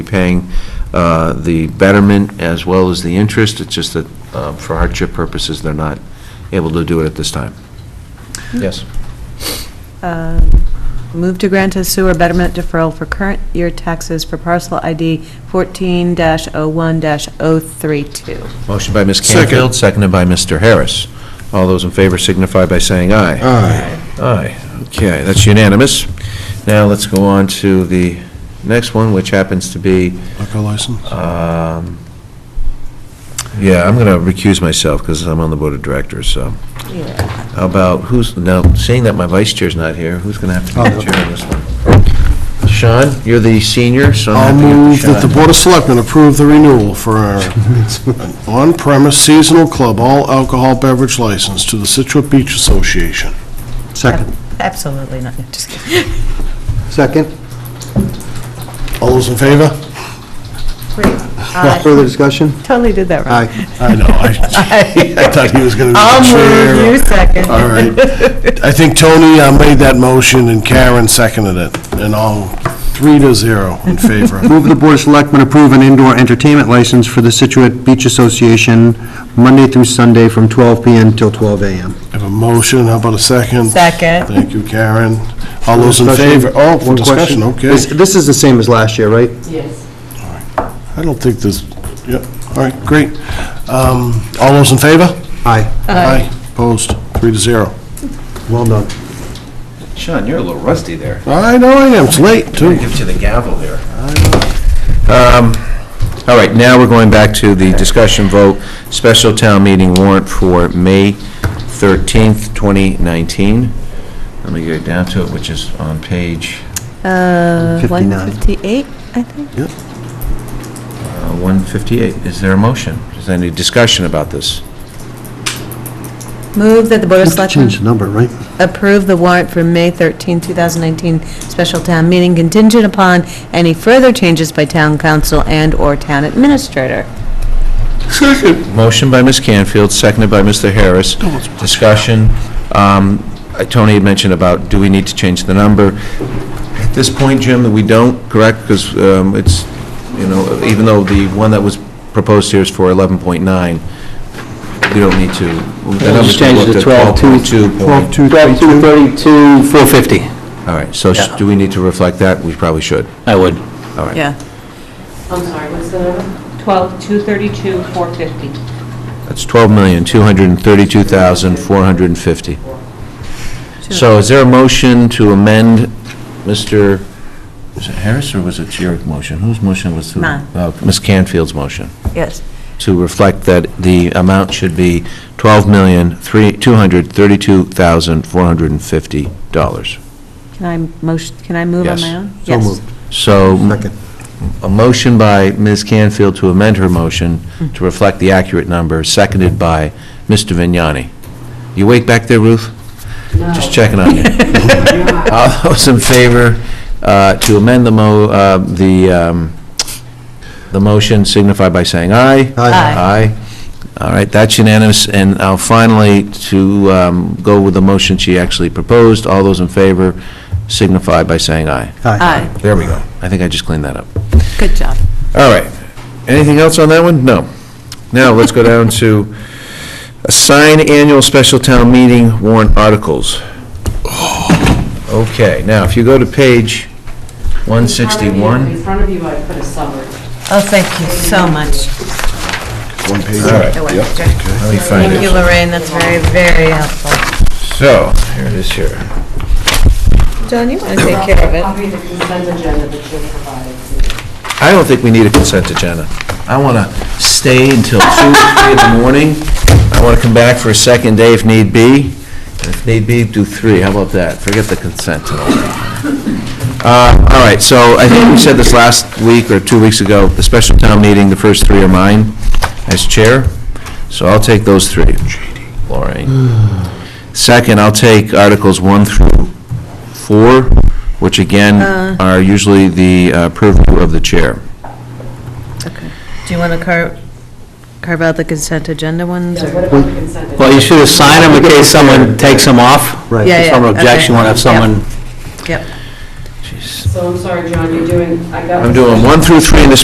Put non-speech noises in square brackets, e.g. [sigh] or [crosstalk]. paying uh, the betterment as well as the interest. It's just that um, for hardship purposes, they're not able to do it at this time. Yes. Um, Move to grant a sewer betterment deferral for current year taxes for parcel ID 14-01-032. Motion by Ms. Second. Canfield, seconded by Mr. Harris. All those in favor signify by saying aye. Aye. Aye. Okay, that's unanimous. Now let's go on to the next one, which happens to be, Liquor license? um, yeah, I'm going to recuse myself because I'm on the Board of Directors, so. Yeah. How about, who's, now, seeing that my vice chair's not here, who's going to have to be Oh. the chair on this one? Sean, you're the senior, so I'll I'm going move to that the give it to Sean. Board of Selectmen approve the renewal [laughs] for our an on-premise seasonal club all alcohol beverage license to the Situate Beach Association. Second. Absolutely not, just kidding. Second. All those in favor? Wait, I Further discussion? Totally did that wrong. Aye. I know, [laughs] I I thought he was going to I'll be move, you the chair. second. All [laughs] right. I think Tony uh, made that motion and Karen seconded it, and all three to zero [laughs] in favor. Move the Board of Selectmen approve an indoor entertainment license for the Situate Beach Association, Monday through Sunday from 12 PM till 12 AM. Have a motion, how about a second? Second. Thank you, Karen. All those in favor? Oh, for One discussion, question. okay. This- This is the same as last year, right? I don't think this, yep, all right, great. Um, All those in favor? Aye. Aye. Opposed, three to zero. Well done. Sean, you're a little rusty there. I know I am, it's late, too. Gives you the gavel there. Um, All right, now we're going back to the discussion vote, special town meeting warrant for May 13th, 2019. Let me get down to it, which is on page Uh, 59. 158, I think. uh, 158. Is there a motion? Is there any discussion about this? Move that the Board of Have to Selectmen change the number, right? approve the warrant for May 13, 2019 special town meeting contingent upon any further changes by town council and/or town administrator. Motion by Ms. Canfield, seconded by Mr. Harris. Discussion. Um, uh, Tony had mentioned about, do we need to change the number? At this point, Jim, we don't, correct? Because it's, you know, even though the one that was proposed here is for 11.9, we don't need to. the number's Just change it to looked at 12, 12.2. 12, 32, 450. All right, so sh- Yeah. do we need to reflect that? We probably should. I would. All right. Yeah. I'm sorry, what's the number? 12, 232, 450. That's 12,232,450. So is there a motion to amend Mr., was it Harris or was it your motion? Whose motion was? to- Mine. Oh, Ms. Canfield's motion, Yes. to reflect that the amount should be $12,232,450. Can I motion, can I move on Yes. my own? So moved. So Second. a motion by Ms. Canfield to amend her motion to reflect the accurate number, seconded by Mr. Vignani. You wake back there, Ruth? Just checking on [laughs] you. All those in favor uh, to amend the mo, uh, the, um, the motion signify by saying aye. Aye. Aye. All right, that's unanimous, and now finally, to um, go with the motion she actually proposed, all those in favor signify by saying aye. Aye, There we go. I think I just cleaned that up. good job. All right. Anything else on that one? No. Now, let's go down to assign annual special town meeting warrant articles. Okay, now, if you go to page 161. In front of you, I put a summary. Oh, thank you so much. One page. All right, let me find Thank you, it. Lorraine, that's very, very helpful. So, here it is here. John, you want to take care of it? Copy the consent agenda that you provided. I don't think we need a consent agenda. I want to stay until 2, 3 in the morning. I want to come back for a second day if need be. And If need be, do 3. How about that? Forget the consent. and all that. Uh, All right, so I think we said this last week or two weeks ago, the special town meeting, the first three are mine as chair, so I'll take those three. Lorraine. Second, I'll take Articles 1 through 4, which again are usually the uh, purview of the chair. Do you want to carve, carve out the consent agenda ones? Yeah, or- What about the consent agenda? Well, you should assign them in case someone takes them off. Right. Yeah, If someone yeah, objects, okay. you want to have someone Yep, So Jeez. So I'm sorry, John, you're doing, I got. I'm doing one through three in the